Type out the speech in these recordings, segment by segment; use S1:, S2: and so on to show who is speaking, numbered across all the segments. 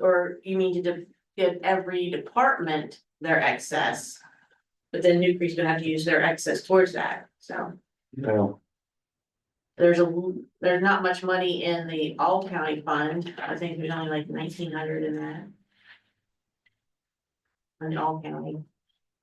S1: Or you mean to de- give every department their excess. But then Newcree's gonna have to use their excess towards that, so
S2: No,
S1: there's a, l- there's not much money in the all county fund, I think there's only like nineteen hundred in that. In the all county,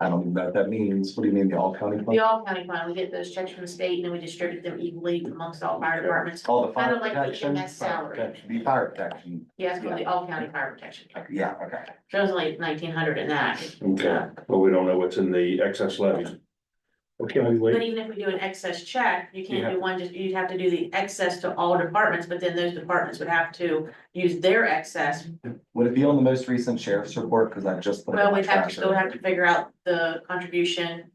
S2: I don't even know what that means. What do you mean, the all county
S1: the
S2: fund?
S1: all county fund, we get those checks from the state and then we distribute them equally amongst all fire departments.
S2: All the
S1: Kind
S2: fire
S1: of like the
S2: protection?
S1: EMS salary.
S2: The fire protection,
S1: Yes, for the all county fire protection,
S2: yeah, okay.
S1: so it's like nineteen hundred in that.
S3: Okay, well, we don't know what's in the excess levy. Okay, we
S1: But
S3: wait,
S1: even if we do an excess check, you
S3: You
S1: can't
S3: have-
S1: do one, just, you'd have to do the excess to all departments, but then those departments would have to use their excess.
S2: Would it be on the most recent sheriff's report? Cause I just. put it in
S1: Well,
S2: my
S1: we'd have to
S2: trash
S1: still have to figure out the contribution.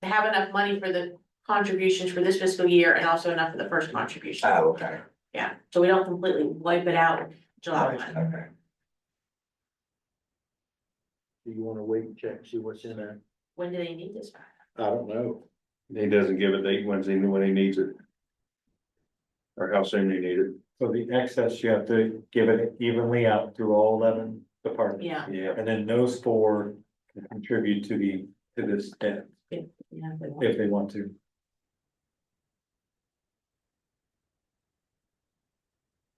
S1: to Have enough money for the contributions for this fiscal year and also enough for the first contribution.
S2: Oh, okay,
S1: Yeah, so we don't completely wipe it out July one.
S2: okay.
S4: Do you wanna wait and check, see what's in there?
S1: When do they need this? by?
S4: I don't know.
S3: he doesn't give a date when's he, when he needs it. Or how soon he need it,
S4: For the excess, you have to give it evenly out through all eleven departments.
S1: Yeah,
S3: yeah,
S4: And then those four can contribute to the, to this debt
S1: yeah. we want-
S4: if they want to.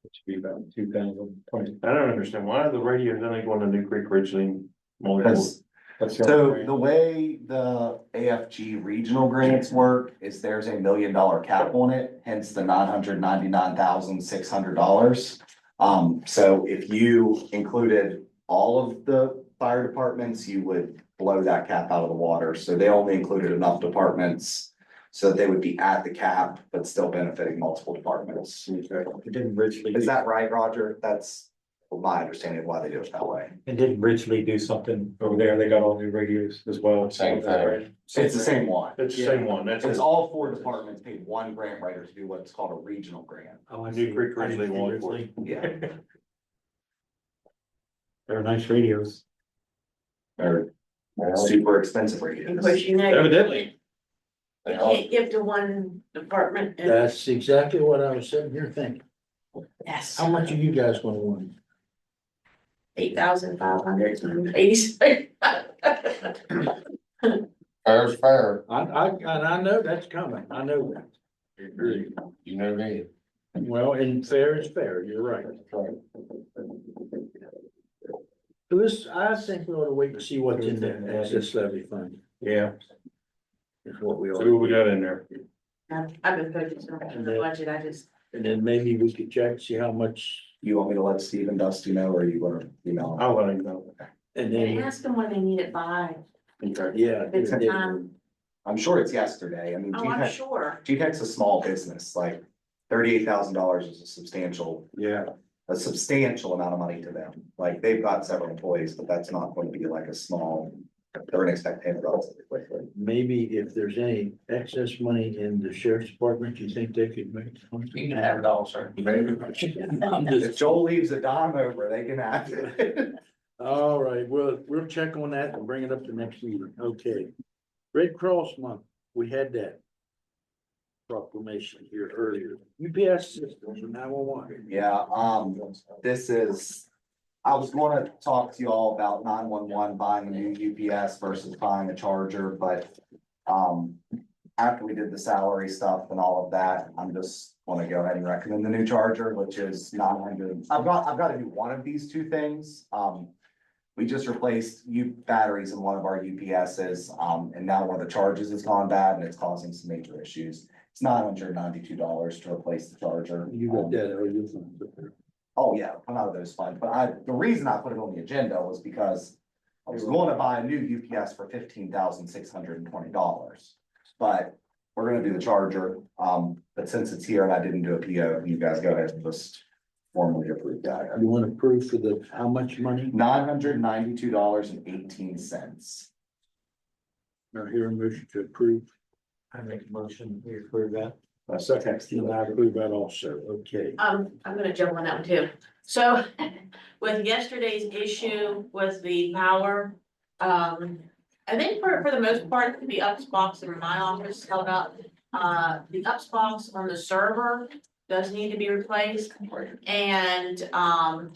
S4: It should be about two thousand twenty.
S3: I don't understand, why are the radios only going to New Creek Ridgeline?
S2: That's-
S4: That's the
S2: so
S4: only
S2: the way the AFG regional grants work is there's a million dollar cap on it, hence the nine hundred ninety-nine thousand six hundred dollars. Um, so if you included all of the fire departments, you would blow that cap out of the water. So they only included enough departments so that they would be at the cap, but still benefiting multiple departments.
S3: Okay,
S4: thing. Didn't Richly,
S2: Is that right, Roger? That's my understanding of why they do it that way.
S4: and didn't Richly do something over there? They got all new radios as well.
S5: Same thing.
S2: It's the same one.
S3: it's the same one, that's.
S2: It's all four departments paid one grant writer to do what's called a regional grant.
S4: Oh, I
S3: New
S4: see.
S3: Creek
S4: I didn't
S3: Ridgeline
S4: see
S3: Law Enforcement.
S4: Ridgely.
S2: Yeah.
S4: They're nice radios.
S2: Or super expensive radios.
S1: Of course, you know. you
S5: Evidently.
S1: can't- You can't give to one department. and-
S6: That's exactly what I was sitting here thinking.
S1: Yes.
S6: How much are you guys gonna want?
S1: eight thousand five hundred times eighty-six.
S5: Fair's fair,
S6: I, I, and I know that's coming. I know that.
S5: you know me.
S6: Well, and fair is fair. You're right. So this, I think we ought to wait and see what's in there, as this levy fund
S3: Yeah,
S6: is what we
S3: so
S6: ought
S3: what we
S6: to do.
S3: got in there,
S1: I've I've been focused on the budget, I just,
S6: And then maybe we could check, see how much,
S2: You want me to let Steve and Dusty know or you want to email? them?
S3: I'll let him know.
S6: and
S1: and
S6: then,
S1: ask them when they need it by,
S3: Okay.
S6: yeah.
S1: if it's
S6: yeah, yeah.
S1: time,
S2: I'm sure it's yesterday. I mean,
S1: oh, I'm
S2: GTEC,
S1: sure.
S2: GTEC's a small business, like thirty-eight thousand dollars is a substantial,
S3: Yeah,
S2: a substantial amount of money to them. Like they've got several employees, but that's not going to be like a small, they're gonna expect payment relatively quickly.
S6: Maybe if there's any excess money in the sheriff's department, you think they could make?
S5: You can have it all, sir.
S6: I'm just-
S2: If Joel leaves a dime over, they can have it.
S6: All right, well, we'll check on that and bring it up to next meeting, okay. Red Cross Month, we had that proclamation here earlier. UPS systems are now on.
S2: Yeah, um, this is, I was gonna talk to y'all about nine one one buying a new UPS versus buying a charger, but. Um, after we did the salary stuff and all of that, I'm just wanna go ahead and recommend the new charger, which is nine hundred. I've got, I've gotta do one of these two things, um. We just replaced U batteries in one of our UPSs, um, and now one of the charges has gone bad and it's causing some major issues. It's nine hundred ninety-two dollars to replace the charger.
S6: You
S2: Um,
S6: got that, oh, you found it.
S2: Oh, yeah, come out of those funds, but I, the reason I put it on the agenda was because I was going to buy a new UPS for fifteen thousand six hundred and twenty dollars. But we're gonna do the charger, um, but since it's here and I didn't do a PO, you guys go ahead and just formally approve that.
S6: You want to prove for the, how much money?
S2: Nine hundred ninety-two dollars and eighteen cents.
S6: Now here, a motion to approve.
S4: I make a motion, we approve that.
S6: Second. And I approve that also, okay.
S1: Um, I'm gonna jump on that one too. So with yesterday's issue with the power, um, I think for, for the most part, the UPS box in my office held up. Uh, the UPS box on the server does need to be replaced. And, um,